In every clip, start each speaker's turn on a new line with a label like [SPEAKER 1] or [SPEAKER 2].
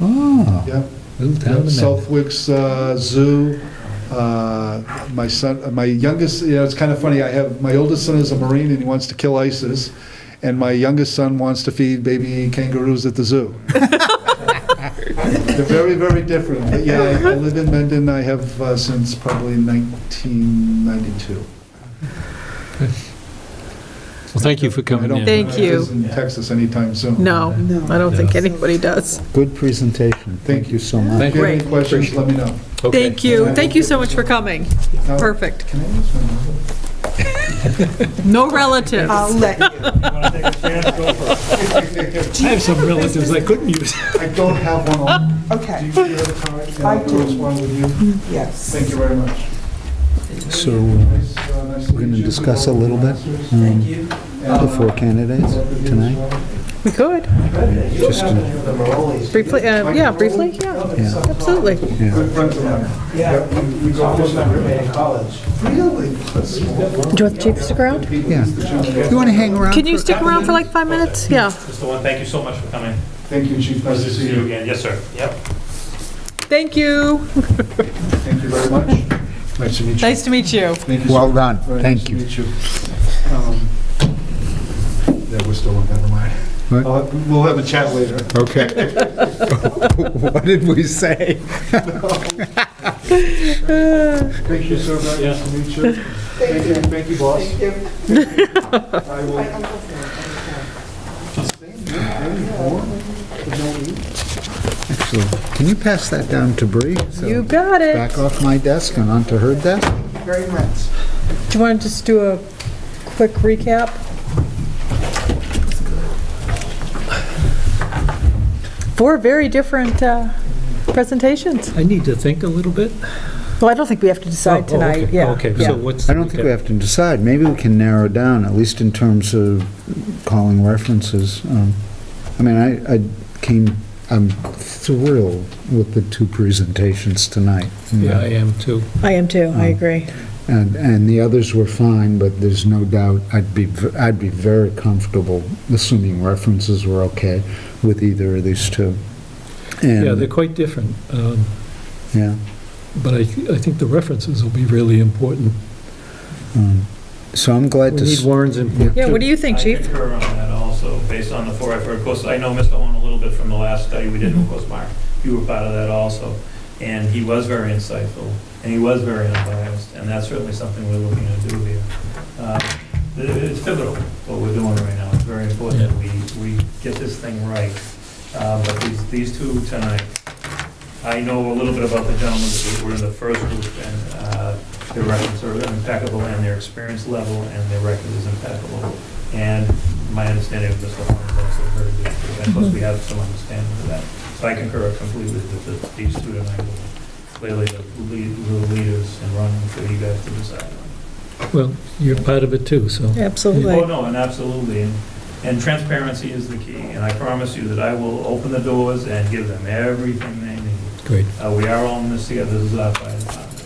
[SPEAKER 1] Oh,
[SPEAKER 2] Ah,
[SPEAKER 3] Yeah,
[SPEAKER 1] little
[SPEAKER 3] yeah,
[SPEAKER 1] town in there.
[SPEAKER 3] Southwick's uh, Zoo, uh, my son, uh, my youngest, yeah, it's kind of funny, I have, my oldest son is a Marine and he wants to kill ISIS, and my youngest son wants to feed baby kangaroos at the zoo. They're very, very different, but yeah, I I live in Mendon, I have uh, since probably 1992.
[SPEAKER 2] Well, thank you for coming
[SPEAKER 3] I don't
[SPEAKER 2] in.
[SPEAKER 3] think
[SPEAKER 4] Thank
[SPEAKER 3] it is
[SPEAKER 4] you.
[SPEAKER 3] in Texas anytime soon.
[SPEAKER 4] No,
[SPEAKER 1] No.
[SPEAKER 4] I don't think
[SPEAKER 2] No.
[SPEAKER 4] anybody does.
[SPEAKER 1] Good presentation. Thank you so
[SPEAKER 3] If
[SPEAKER 1] much.
[SPEAKER 3] you have any
[SPEAKER 4] Great.
[SPEAKER 3] questions, let me know.
[SPEAKER 2] Okay.
[SPEAKER 4] Thank you. Thank you so much for coming.
[SPEAKER 3] Now-
[SPEAKER 4] Perfect.
[SPEAKER 3] Can I use my-
[SPEAKER 4] No relatives.
[SPEAKER 5] I'll let you.
[SPEAKER 2] I have some relatives I couldn't use.
[SPEAKER 3] I don't have one on. Do
[SPEAKER 5] Okay,
[SPEAKER 3] you have a card? Can
[SPEAKER 5] I do.
[SPEAKER 3] correspond with you?
[SPEAKER 5] yes.
[SPEAKER 3] Thank you very much.
[SPEAKER 1] So uh,
[SPEAKER 3] Nice, uh, nice to
[SPEAKER 1] We're gonna
[SPEAKER 3] meet you.
[SPEAKER 1] discuss a
[SPEAKER 3] Good
[SPEAKER 1] little
[SPEAKER 3] luck
[SPEAKER 1] bit,
[SPEAKER 3] with
[SPEAKER 1] um,
[SPEAKER 3] your
[SPEAKER 1] Thank
[SPEAKER 3] answers.
[SPEAKER 1] Um, the
[SPEAKER 3] And,
[SPEAKER 1] four
[SPEAKER 3] uh,
[SPEAKER 1] candidates
[SPEAKER 3] work with you as
[SPEAKER 1] tonight.
[SPEAKER 3] well.
[SPEAKER 4] We could.
[SPEAKER 1] Just to-
[SPEAKER 4] Briefly, uh, yeah, briefly, yeah,
[SPEAKER 1] Yeah.
[SPEAKER 4] absolutely.
[SPEAKER 3] Good friends of mine. Yeah. we- We go fishing every college. Really? That's small world.
[SPEAKER 4] Do you want the chief to stick around?
[SPEAKER 1] Yeah. You want to hang around?
[SPEAKER 4] Can you
[SPEAKER 1] for-
[SPEAKER 4] stick around for like five minutes? Yeah.
[SPEAKER 6] Mr. Lynn, thank you so much for coming.
[SPEAKER 3] Thank you, Chief. Nice to see you.
[SPEAKER 6] again. Yes, sir. Yep.
[SPEAKER 4] Thank you.
[SPEAKER 3] Thank you very much. Nice to meet you.
[SPEAKER 4] Nice to meet you.
[SPEAKER 3] Thank you so
[SPEAKER 1] Well done.
[SPEAKER 3] Very nice
[SPEAKER 1] Thank
[SPEAKER 3] to
[SPEAKER 1] you.
[SPEAKER 3] meet you. Um, Yeah, we're still on, never mind.
[SPEAKER 1] What?
[SPEAKER 3] I'll- We'll have a chat later.
[SPEAKER 1] Okay. What did we say?
[SPEAKER 3] Thank you, sir, very nice to meet you. Thank you, thank you, boss. I will.
[SPEAKER 1] Excellent. Can you pass that down to Bree? So
[SPEAKER 4] You got it.
[SPEAKER 1] Back off my desk and onto her desk?
[SPEAKER 5] Very much.
[SPEAKER 4] Do you want to just do a quick recap? Four very different uh, presentations.
[SPEAKER 2] I need to think a little bit.
[SPEAKER 4] Well, I don't think we have to
[SPEAKER 2] Oh, oh,
[SPEAKER 4] decide tonight,
[SPEAKER 2] okay.
[SPEAKER 4] yeah.
[SPEAKER 2] Okay,
[SPEAKER 4] yeah.
[SPEAKER 2] so what's?
[SPEAKER 1] I don't think we have to decide. Maybe we can narrow down, at least in terms of calling references. Um, I mean, I, I came, I'm thrilled with the two presentations tonight.
[SPEAKER 2] Yeah, I am too.
[SPEAKER 4] I am too,
[SPEAKER 2] Hmm.
[SPEAKER 4] I agree.
[SPEAKER 1] And, and the others were fine, but there's no doubt, I'd be, v- I'd be very comfortable, assuming references were okay, with either of these two. And-
[SPEAKER 2] Yeah, they're quite different. um,
[SPEAKER 1] Yeah.
[SPEAKER 2] But I, I think the references will be really important.
[SPEAKER 1] um, So I'm
[SPEAKER 2] We
[SPEAKER 1] glad to,
[SPEAKER 2] need
[SPEAKER 1] s-
[SPEAKER 2] Warren's input.
[SPEAKER 4] Yeah, what do you think,
[SPEAKER 6] I
[SPEAKER 4] chief?
[SPEAKER 6] concur on that also, based on the four I've heard. Of course, I know Mr. Owen a little bit from the last study we did,
[SPEAKER 3] Mm-hmm.
[SPEAKER 6] and of course, Mark, you were part of that also. And he was very insightful, and he was very unbiased, and that's certainly something we're looking to do here. Uh, it- It's pivotal, what we're doing right now. It's very important that we, we get this thing right. Uh, But these, these two tonight, I know a little bit about the gentlemen that were in the first group, and uh, their records are impeccable, and their experience level, and their record is impeccable. And my understanding of Mr. Horn is also very good, too, and plus we have some understanding of that. So I concur completely with the- these two tonight, clearly the lead- the leaders and running for you guys to decide on.
[SPEAKER 2] Well, you're part of it too, so.
[SPEAKER 6] Oh,
[SPEAKER 4] Absolutely.
[SPEAKER 6] no, and absolutely, and- and transparency is the key, and I promise you that I will open the doors and give them everything they need.
[SPEAKER 2] Great.
[SPEAKER 6] Uh, We are all in this together, this is our fire department,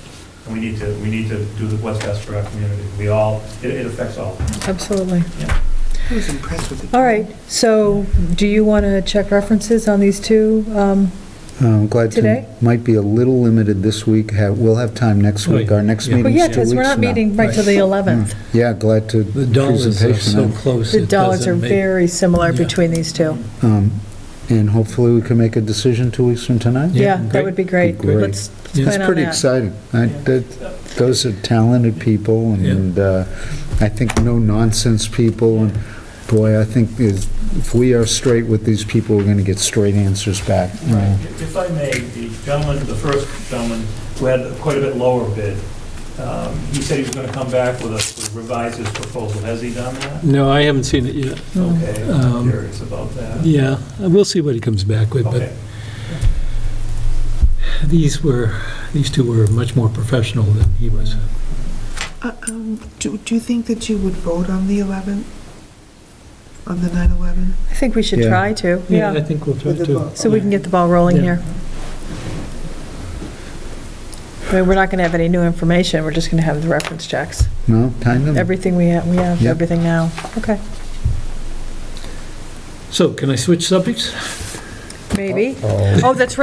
[SPEAKER 6] and we need to, we need to do the what's best for our community. We all, it it affects all.
[SPEAKER 4] Absolutely.
[SPEAKER 5] I was impressed with it.
[SPEAKER 4] All right, so do you want to check references on these two? Um,
[SPEAKER 1] I'm glad
[SPEAKER 4] Today?
[SPEAKER 1] to, might be a little limited this week. Ha- We'll have time next week. Our next
[SPEAKER 2] Right, yeah.
[SPEAKER 4] Well,
[SPEAKER 1] meeting's two weeks
[SPEAKER 4] yeah, because we're not
[SPEAKER 1] from now. Hmm.
[SPEAKER 4] meeting right till the 11th.
[SPEAKER 1] Yeah, glad to,
[SPEAKER 2] The dollars are so
[SPEAKER 1] presentation.
[SPEAKER 2] close.
[SPEAKER 4] The
[SPEAKER 2] it
[SPEAKER 4] dollars are
[SPEAKER 2] doesn't make-
[SPEAKER 4] very similar
[SPEAKER 2] Yeah.
[SPEAKER 4] between these two.
[SPEAKER 1] um, And hopefully we can make a decision two weeks from tonight.
[SPEAKER 2] Yeah,
[SPEAKER 4] Yeah, that
[SPEAKER 2] great.
[SPEAKER 4] would be great.
[SPEAKER 1] Great.
[SPEAKER 4] Let's
[SPEAKER 2] Yeah.
[SPEAKER 1] It's
[SPEAKER 4] plan on
[SPEAKER 1] pretty
[SPEAKER 4] that.
[SPEAKER 1] exciting. I- that- Those are talented people, and uh, I think no-nonsense people, and boy, I think is- if we are straight with these people, we're going to get straight answers back.
[SPEAKER 6] Right. If I may, the gentleman, the first gentleman, who had quite a bit lower bid, um, he said he was going to come back with a revise his proposal. Has he done that?
[SPEAKER 2] No, I haven't seen it yet.
[SPEAKER 6] Okay, I'm
[SPEAKER 2] Um,
[SPEAKER 6] curious about that.
[SPEAKER 2] Yeah, we'll see what he comes back with, but
[SPEAKER 6] Okay,
[SPEAKER 2] these were, these two were much more professional than he was.
[SPEAKER 5] Uh, um, Do do you think that you would vote on the 11th? On the 9/11?
[SPEAKER 4] I think we should
[SPEAKER 1] Yeah.
[SPEAKER 4] try to,
[SPEAKER 2] I
[SPEAKER 4] yeah,
[SPEAKER 2] think we'll try
[SPEAKER 5] With the
[SPEAKER 2] to.
[SPEAKER 5] vote.
[SPEAKER 4] so we can get the ball rolling
[SPEAKER 2] Yeah.
[SPEAKER 4] here. I mean, we're not going to have any new information, we're just going to have the reference checks.
[SPEAKER 1] No, kind of?
[SPEAKER 4] Everything we have, we have
[SPEAKER 1] Yeah.
[SPEAKER 4] everything now. Okay.
[SPEAKER 2] So can I switch subjects?
[SPEAKER 4] maybe. Oh, that's right.